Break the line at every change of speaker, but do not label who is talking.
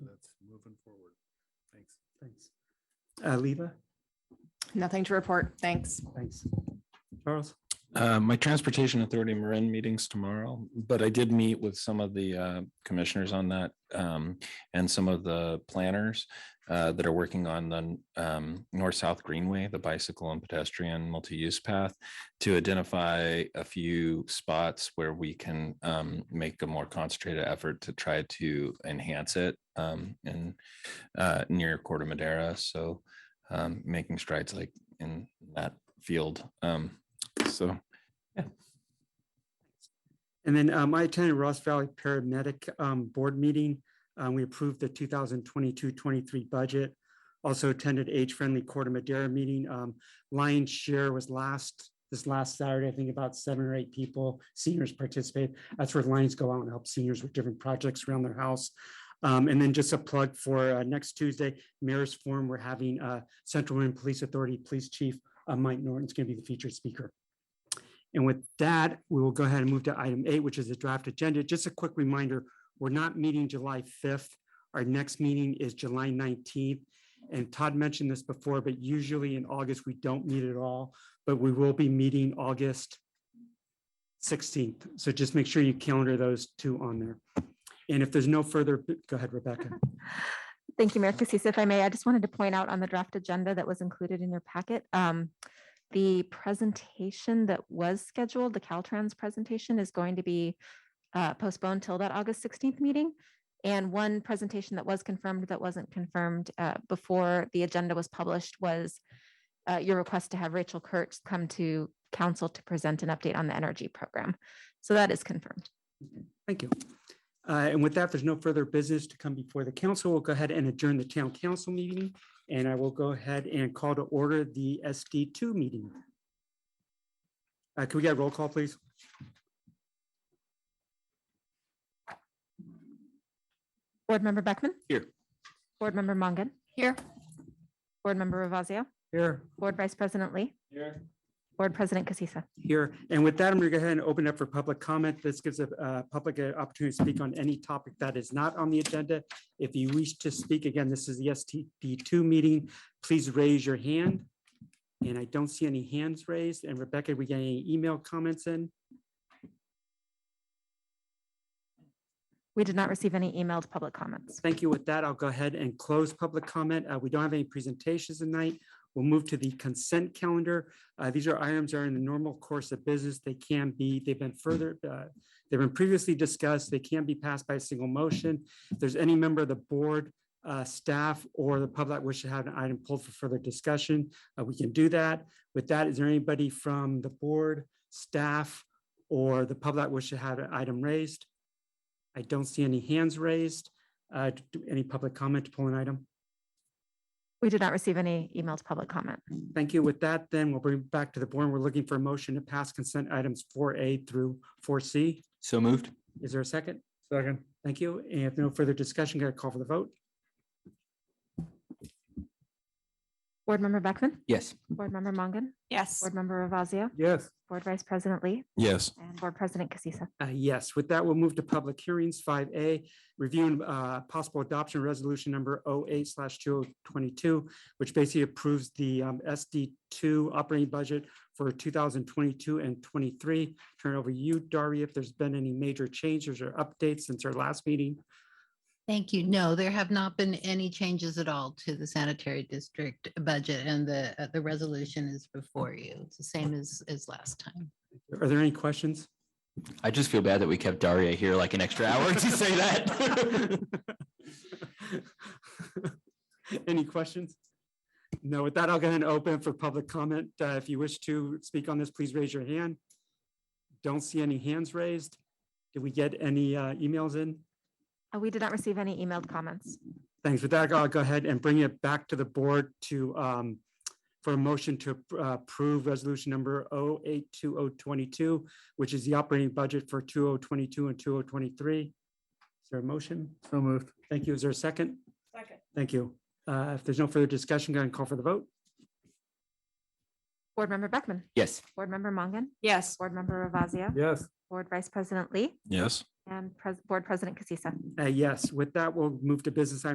Thanks. Uh, Leva,
Nothing to report. Thanks.
thanks. Charles,
Uh, my transportation authority Marin meetings tomorrow, but I did meet with some of the uh, commissioners on that um, and some of the planners uh, that are working on the um, north-south greenway, the bicycle and pedestrian multi-use path to identify a few spots where we can um, make a more concentrated effort to try to enhance it um, in uh, near Corte Madera. So um, making strides like in that field. Um, so
and then um, I attended Ross Valley Paramedic um, Board meeting. Um, we approved the 2022-23 budget. Also attended age-friendly Corte Madera meeting. Um, Lion's share was last this last Saturday. I think about seven or eight people, seniors participate. That's where Lions go out and help seniors with different projects around their house. Um, and then just a plug for uh, next Tuesday, Mayor's Forum. We're having uh, Central Marin Police Authority Police Chief uh, Mike Norton's going to be the featured speaker. And with that, we will go ahead and move to item eight, which is the draft agenda. Just a quick reminder, we're not meeting July fifth. Our next meeting is July nineteenth. And Todd mentioned this before, but usually in August, we don't meet at all, but we will be meeting August sixteenth. So just make sure you calendar those two on there. And if there's no further, go ahead, Rebecca.
Thank you, Mayor Casissa. If I may, I just wanted to point out on the draft agenda that was included in your packet, um, the presentation that was scheduled, the Caltrans presentation is going to be uh, postponed till that August 16th meeting. And one presentation that was confirmed that wasn't confirmed uh, before the agenda was published was uh, your request to have Rachel Kurtz come to council to present an update on the energy program. So that is confirmed.
Thank you. Uh, And with that, if there's no further business to come before the council. We'll go ahead and adjourn the town council meeting. And I will go ahead and call to order the SD two meeting. Uh, Can we get a roll call, please?
Board Member Beckman?
Here.
Board Member Mongan? Here. Board Member Ravazio?
Here.
Board Vice President Lee.
Here.
Board President Casissa.
Here. And with that, I'm going to go ahead and open up for public comment. This gives a uh, public an opportunity to speak on any topic that is not on the agenda. If you wish to speak, again, this is the STD two meeting. Please raise your hand. And I don't see any hands raised. And Rebecca, we get any email comments in?
We did not receive any emailed public comments.
Thank you. With that, I'll go ahead and close public comment. Uh, We don't have any presentations tonight. We'll move to the consent calendar. Uh, These are items that are in the normal course of business. They can be, they've been further, uh, they've been previously discussed. They can be passed by a single motion. If there's any member of the board, uh, staff, or the public that wish to have an item pulled for further discussion, uh, we can do that. With that, is there anybody from the board, staff, or the public that wish to have an item raised? I don't see any hands raised. Uh, d- do Any public comment to pull an item?
We did not receive any emailed public comment.
Thank you. With that, then we'll bring it back to the board. We're looking for a motion to pass consent items four A through four C.
so moved.
Is there a second?
Second.
Thank you. And if no further discussion, got to call for the vote.
Board Member Beckman?
Yes.
Board Member Mongan?
Yes.
Board Member Ravazio?
Yes.
Board Vice President Lee?
Yes.
And Board President Casissa.
Uh, Yes, with that, we'll move to public hearings. Five A, review and uh, possible adoption of resolution number 08 slash two oh twenty-two, which basically approves the um, SD two operating budget for two thousand twenty-two and twenty-three. Turn it over to you, Daria, if there's been any major changes or updates since our last meeting.
Thank you. No, there have not been any changes at all to the sanitary district budget and the, uh, the resolution is before you. It's the same as, as last time.
Are there any questions?
I just feel bad that we kept Daria here like an extra hour to say that.
Any questions? No, with that, I'll go ahead and open for public comment. Uh, If you wish to speak on this, please raise your hand. Don't see any hands raised. Did we get any uh, emails in?
Uh, We did not receive any emailed comments.
Thanks. With that, I'll go ahead and bring it back to the board to, um, for a motion to uh, approve resolution number 082022, which is the operating budget for 2022 and 2023. Is there a motion?
So moved.
Thank you. Is there a second?
Second.
Thank you. Uh, If there's no further discussion, go ahead and call for the vote.
Board Member Beckman?
yes.
Board Member Mongan?
Yes.
Board Member Ravazio?
Yes.
Board Vice President Lee?
Yes.
And Pres- Board President Casissa.
Uh, Yes, with that, we'll move to business item